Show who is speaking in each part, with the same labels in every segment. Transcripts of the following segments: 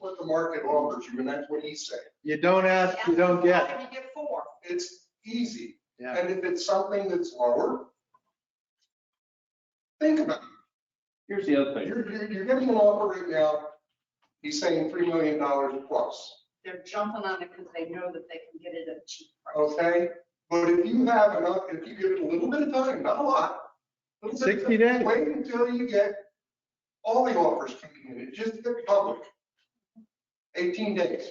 Speaker 1: what the market offers you, and that's what he's saying.
Speaker 2: You don't ask, you don't get.
Speaker 3: How can you get four?
Speaker 1: It's easy.
Speaker 2: Yeah.
Speaker 1: And if it's something that's lower, think about
Speaker 4: Here's the other
Speaker 1: it.
Speaker 4: thing.
Speaker 1: You're, you're- you're getting an offer right now, he's saying $3 million plus.
Speaker 3: They're jumping on it because they know that they can get it at a cheap price.
Speaker 1: okay? But if you have enough, if you give it a little bit of time, not a lot. little bit of time,
Speaker 2: 60 days.
Speaker 1: Wait until you get all the offers coming in, It just hit public. 18 days.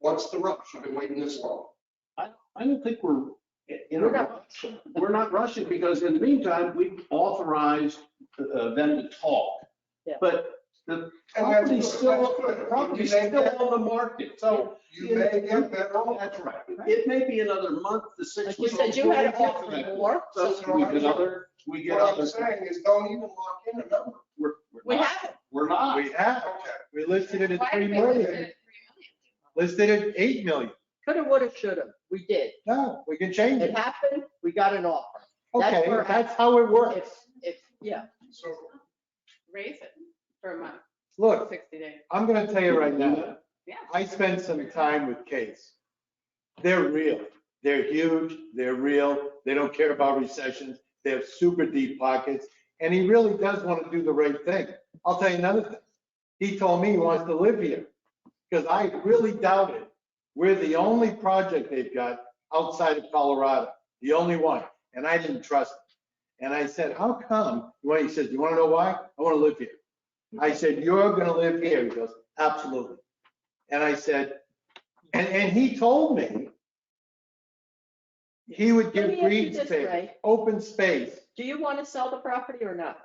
Speaker 1: What's the rush? I've been waiting this long.
Speaker 4: I, I don't think we're in a rush. We're not rushing because in the meantime, we authorized uh, them to talk.
Speaker 5: Yeah.
Speaker 4: But the
Speaker 1: And that's
Speaker 4: property's
Speaker 1: good,
Speaker 4: still,
Speaker 1: that's good.
Speaker 4: the property's
Speaker 1: You may
Speaker 4: still
Speaker 1: get-
Speaker 4: on the market, so
Speaker 1: You may get better
Speaker 4: that's
Speaker 1: offers.
Speaker 4: right. It may be another month to six
Speaker 5: Like you
Speaker 4: weeks.
Speaker 5: said, you had to
Speaker 4: We'll get to
Speaker 5: offer
Speaker 4: that.
Speaker 5: more.
Speaker 4: So we get other, we get
Speaker 1: What I'm
Speaker 4: other,
Speaker 1: saying is don't even lock in a number.
Speaker 4: we're, we're
Speaker 5: We
Speaker 4: not,
Speaker 5: have
Speaker 4: we're not.
Speaker 2: We have,
Speaker 1: Okay.
Speaker 2: we listed it at
Speaker 3: Why
Speaker 2: three
Speaker 3: did they list it
Speaker 2: million,
Speaker 3: at
Speaker 2: listed it at eight million.
Speaker 5: Coulda, woulda, shoulda. We did.
Speaker 2: No, we can change
Speaker 5: It
Speaker 2: it.
Speaker 5: happened. We got an offer. That's
Speaker 2: Okay,
Speaker 5: where I-
Speaker 2: that's how it
Speaker 5: If,
Speaker 2: works.
Speaker 5: if, yeah.
Speaker 1: So
Speaker 6: raise it for a month,
Speaker 2: Look,
Speaker 6: sixty days.
Speaker 2: I'm gonna tell you right now,
Speaker 6: Yeah.
Speaker 2: I spent some time with Case. They're real. They're huge. They're real. They don't care about recessions. They have super deep pockets. And he really does want to do the right thing. I'll tell you another thing. He told me he wants to live here because I really doubt it. We're the only project they've got outside of Colorado, the only one. And I didn't trust him. And I said, how come? Well, he says, you want to know why? I want to live here. I said, you're going to live here. He goes, absolutely. And I said, and, and he told me he would
Speaker 5: Let me
Speaker 2: give
Speaker 5: ask you
Speaker 2: green
Speaker 5: this,
Speaker 2: space,
Speaker 5: Ray.
Speaker 2: open space.
Speaker 5: Do you want to sell the property or not?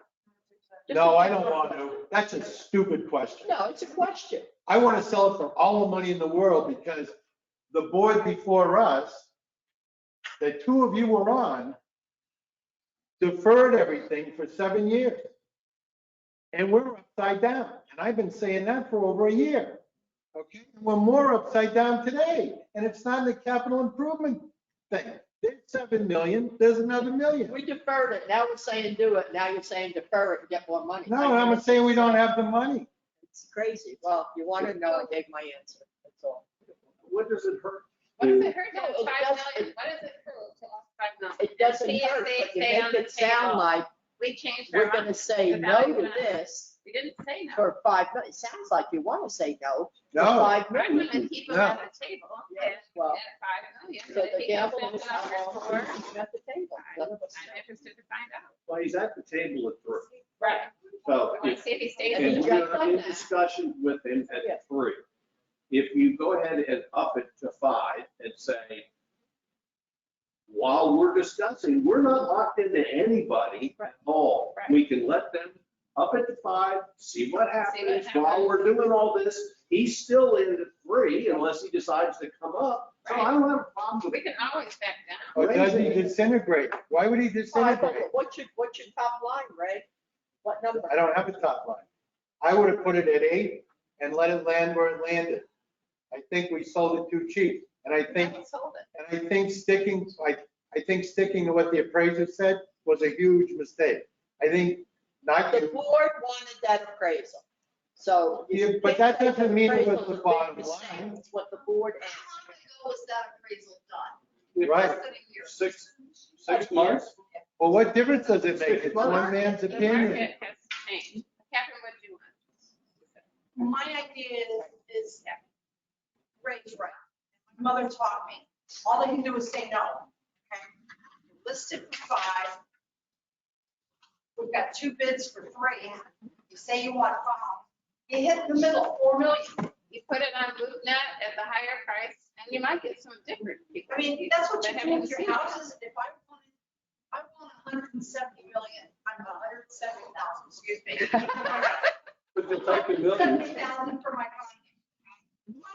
Speaker 5: Just
Speaker 2: No,
Speaker 5: a
Speaker 2: I don't
Speaker 5: general-
Speaker 2: want to. That's a stupid question.
Speaker 5: No, it's a question.
Speaker 2: I want to sell it for all the money in the world because the board before us, the two of you were on, deferred everything for seven years. And we're upside down. And I've been saying that for over a year. Okay? We're more upside down today. And it's not the capital improvement thing. There's seven million, there's another million.
Speaker 5: We deferred it. Now we're saying do it. Now you're saying defer it and get more money.
Speaker 2: No, I'm saying we don't have the money.
Speaker 5: It's crazy. Well, you want to know, I gave my answer. That's all.
Speaker 4: What does it hurt?
Speaker 6: What does it hurt to
Speaker 5: No,
Speaker 6: have
Speaker 5: it
Speaker 6: five
Speaker 5: does-
Speaker 6: million? What does it hurt to have five million?
Speaker 5: It doesn't
Speaker 6: See if
Speaker 5: hurt,
Speaker 6: they
Speaker 5: but you
Speaker 6: stay on
Speaker 5: make
Speaker 6: the
Speaker 5: it sound
Speaker 6: table.
Speaker 5: like
Speaker 6: We changed our
Speaker 5: we're going to
Speaker 6: mind.
Speaker 5: say
Speaker 6: The
Speaker 5: no
Speaker 6: value
Speaker 5: to
Speaker 6: went up.
Speaker 5: this
Speaker 6: We didn't say no.
Speaker 5: for five, mi- it sounds like you want to say no. for
Speaker 2: No,
Speaker 5: Five
Speaker 6: We're
Speaker 5: million.
Speaker 6: gonna keep them
Speaker 2: No.
Speaker 6: at the table and
Speaker 5: Yes, Well,
Speaker 6: at five million.
Speaker 5: So
Speaker 6: If
Speaker 5: the
Speaker 6: he
Speaker 5: gamble
Speaker 6: comes
Speaker 5: is
Speaker 6: in
Speaker 5: not
Speaker 6: and offers
Speaker 5: all
Speaker 6: more,
Speaker 5: at the table. None of us
Speaker 6: I'm interested to find out.
Speaker 4: Well, he's at the table at three.
Speaker 6: Right.
Speaker 4: So
Speaker 6: I
Speaker 4: if
Speaker 6: want to see if he stays.
Speaker 5: And
Speaker 4: And
Speaker 6: in
Speaker 4: we
Speaker 5: got
Speaker 6: the
Speaker 4: are in
Speaker 6: table.
Speaker 4: discussion with them
Speaker 5: Yeah.
Speaker 4: at three. If you go ahead and up it to five and say, while we're discussing, we're not locked into anybody
Speaker 5: Right.
Speaker 4: at all.
Speaker 6: Right.
Speaker 4: We can let them up it to five, see what happens. While
Speaker 6: happens.
Speaker 4: we're doing all this, he's still in the three unless he decides to come up. So I don't have a problem with
Speaker 6: We can always back down.
Speaker 2: Or does he disintegrate? Why would he
Speaker 5: Five, but
Speaker 2: disintegrate?
Speaker 5: What's your, what's your top line, Ray? What number?
Speaker 2: I don't have a top line. I would have put it at eight and let it land where it landed. I think we sold it too cheap, and I think,
Speaker 6: We sold it.
Speaker 2: and I think sticking, I, I think sticking to what the appraiser said was a huge mistake. I think not,
Speaker 5: The board wanted that appraisal, so. you
Speaker 2: Yeah, but
Speaker 5: think
Speaker 2: that doesn't mean it was
Speaker 5: appraisal's
Speaker 2: the
Speaker 5: a big
Speaker 2: bottom
Speaker 5: mistake.
Speaker 2: line.
Speaker 5: It's what the board
Speaker 3: How long
Speaker 5: asked.
Speaker 3: ago was that appraisal done?
Speaker 4: it.
Speaker 2: Right.
Speaker 3: Less than a year.
Speaker 4: Six, six months?
Speaker 2: well, what difference does it make? It's one man's
Speaker 6: The market
Speaker 2: opinion.
Speaker 6: has changed. Catherine, what do you want?
Speaker 3: My idea is, is Ray's right. My Mother taught me, all they can do is say no. Okay, Listed for five. We've got two bids for three. You say you want five. You hit the middle, four million.
Speaker 6: You put it on LoopNet at the higher price and you might get some different people.
Speaker 3: I mean, that's what you
Speaker 6: They
Speaker 3: do
Speaker 6: haven't
Speaker 3: with your
Speaker 6: seen it.
Speaker 3: houses. If I want, I want hundred and seventy million, I'm hundred and seventy thousand, excuse me.
Speaker 4: But the type of
Speaker 3: Seventy
Speaker 4: million,
Speaker 3: thousand for my condo.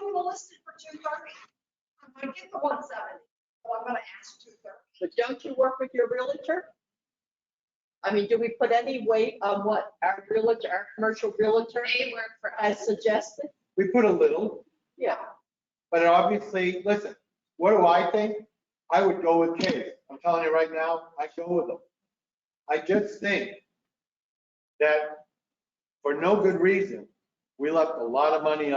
Speaker 3: I'm gonna list it for two thirty. I'm gonna get the one seventy, so I'm gonna ask two thirty.
Speaker 5: But don't you work with your realtor? I mean, do we put any weight on what our realtor, our commercial realtor
Speaker 6: They work for
Speaker 5: has
Speaker 6: us.
Speaker 5: suggested?
Speaker 2: We put a little,
Speaker 5: Yeah.
Speaker 2: but obviously, listen, what do I think? I would go with Case. I'm telling you right now, I go with him. I just think that for no good reason, We left a lot of money on